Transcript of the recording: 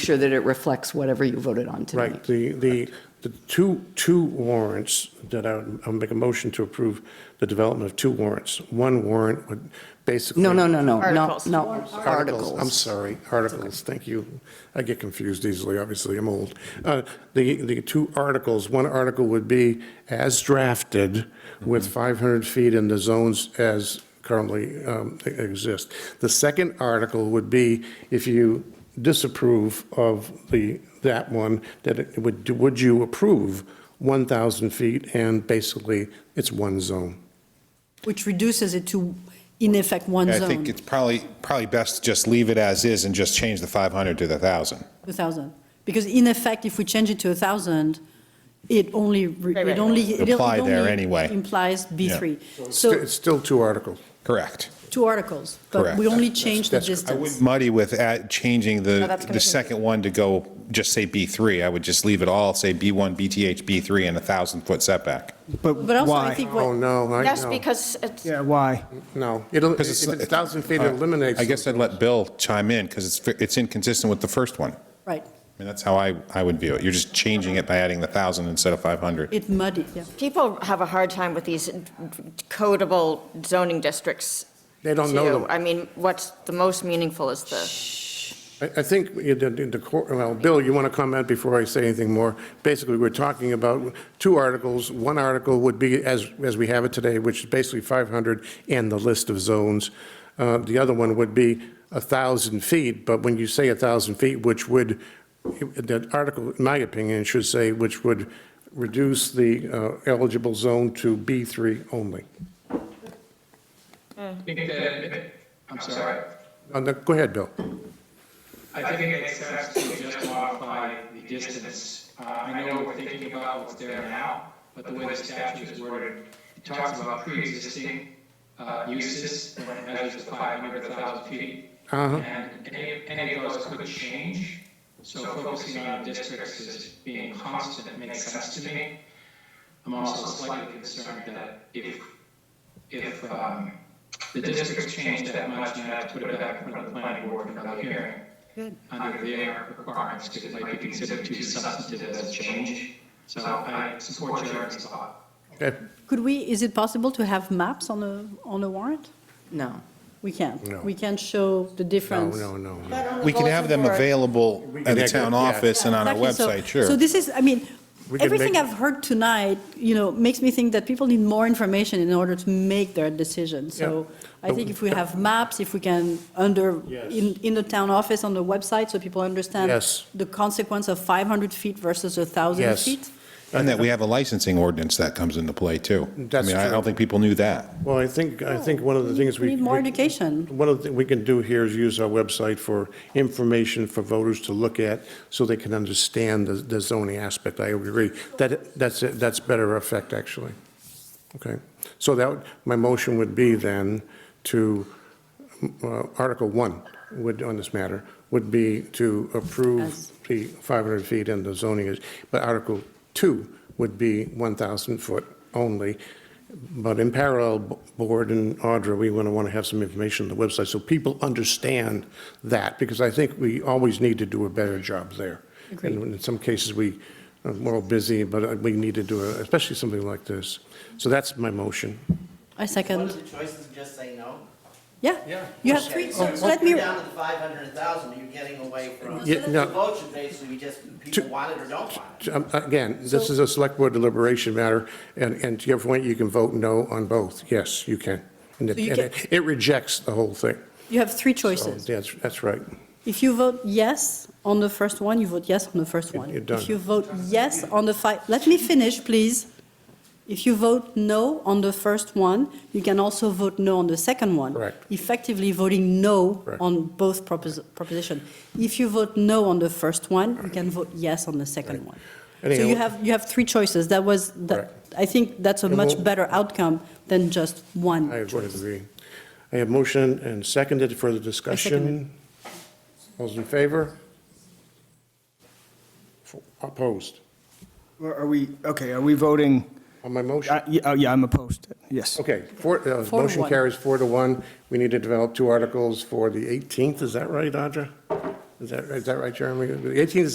sure that it reflects whatever you voted on tonight. Right, the, the, the two, two warrants that I would, I'll make a motion to approve the development of two warrants. One warrant would basically. No, no, no, no, no, Articles. no, I'm articles. sorry, articles, thank you. I get confused easily, obviously, I'm old. Uh, The, the two articles, one article would be as drafted with 500 feet in the zones as currently um, exist. The second article would be if you disapprove of the, that one, that it would, would you approve 1,000 feet and basically it's one zone. Which reduces it to, in effect, one I think zone, it's probably, probably best to just leave it as is and just change the 500 to the 1,000. 2,000. Because in effect, if we change it to 1,000, it only, re- Right, it right. only. it Apply only there anyway. Implies B3. So It's still two articles. Correct. two articles, but Correct. we only change the That's- that's- I wouldn't distance. muddy with at- changing No, the, that's the confusing. second one to go, just say B3. I would just leave it all, say B1, BTH, B3, and a 1,000-foot setback. But But also, I why? think Oh, what, no, I know. That's because it's, Yeah, why? No, it'll, if Because it's it's- 1,000 feet, it eliminates. I guess I'd let Bill chime in, because it's, it's inconsistent with the first one. I right, mean, that's how I, I would view it. You're just changing it by adding the 1,000 instead of 500. it muddy, yeah. people have a hard time with these codable zoning districts. They don't know too. them. I mean, what's the most meaningful is the. I, I think you did the, cor- well, Bill, you want to comment before I say anything more? Basically, we're talking about two articles. One article would be as, as we have it today, which is basically 500 and the list of zones. Uh, The other one would be 1,000 feet, but when you say 1,000 feet, which would, that article, in my opinion, should say, which would reduce the uh, eligible zone to B3 only. I think that, I'm sorry, Uh, no, Go ahead, Bill. I think it makes sense to just modify the distance. Uh, I know we're thinking about what's there now, but the way the statute is worded, it talks about pre-existing uh, uses, when it measures the 500, 1,000 feet. And any, any of those could change, so focusing on districts as being constant makes sense to me. I'm also slightly concerned that if, if um, the districts change that much, you have to put it back in front of the planning board for another hearing. Under their requirements, because it might be considered too substantive as a change. So I support Jeremy's thought. Okay, Could we, is it possible to have maps on a, on a warrant? No. We can't. No. We can't show the no, difference. no, no. no. We can have them available at the town Yeah. office and on our Exactly. So- website, sure. So this is, I mean, We can everything make- I've heard tonight, you know, makes me think that people need more information in order to make their decision. So Yeah. I think if we have maps, if we can under, in, in the town office, on the website, so people understand Yes. the consequence of 500 feet versus 1,000 Yes. feet. And that we have a licensing ordinance that comes into play, too. That's I mean, I true. don't think people knew that. Well, I think, I think one of the things we. Oh, We need more we- education. One of the things we can do here is use our website for information for voters to look at so they can understand the- the zoning aspect. I agree. That, that's, it. that's better effect, actually. Okay. So that, would- my motion would be then to, uh, Article 1 would, on this matter, would be to approve As- the 500 feet and the zoning is, but Article 2 would be 1,000 foot only. But in parallel, B- Board and Audra, we want to want to have some information on the website so people understand that, because I think we always need to do a better job there. Agreed. And in some cases, we are more busy, but uh, we need to do, a- especially something like this. So that's my motion. I One second, of the choices, just say no. yeah. You have three, so so let me, You're down to five hundred thousand, you're getting away from. Yeah, no. The vote should basically be just, people want it or don't want it. Um, Again, this is a select board deliberation matter, and, and to your point, you can vote no on both. Yes, you can. And it, So you and it it rejects the whole thing. you have three So choices. that's, that's right. If you vote yes on the first one, you vote yes on the first one. you're done. If you vote yes on the five, let me finish, please. If you vote no on the first one, you can also vote no on the second one. Correct. Effectively voting no Correct. on both propos- proposition. If you vote no on the first one, you can vote yes on the second one. So you Anyhow- have, you have three choices. That was, that, Correct. I think that's a And much we'll- better outcome than just one. I would choice. agree. I have motion and seconded for the discussion. Those in favor? Opposed Or Are we, okay, are we voting? on my motion? Uh, Yeah, oh, yeah, I'm opposed, yes. Okay, four, uh, Four to motion one. carries four to one. We need to develop two articles for the 18th, is that right, Audra? Is that, is that right, Jeremy? 18 is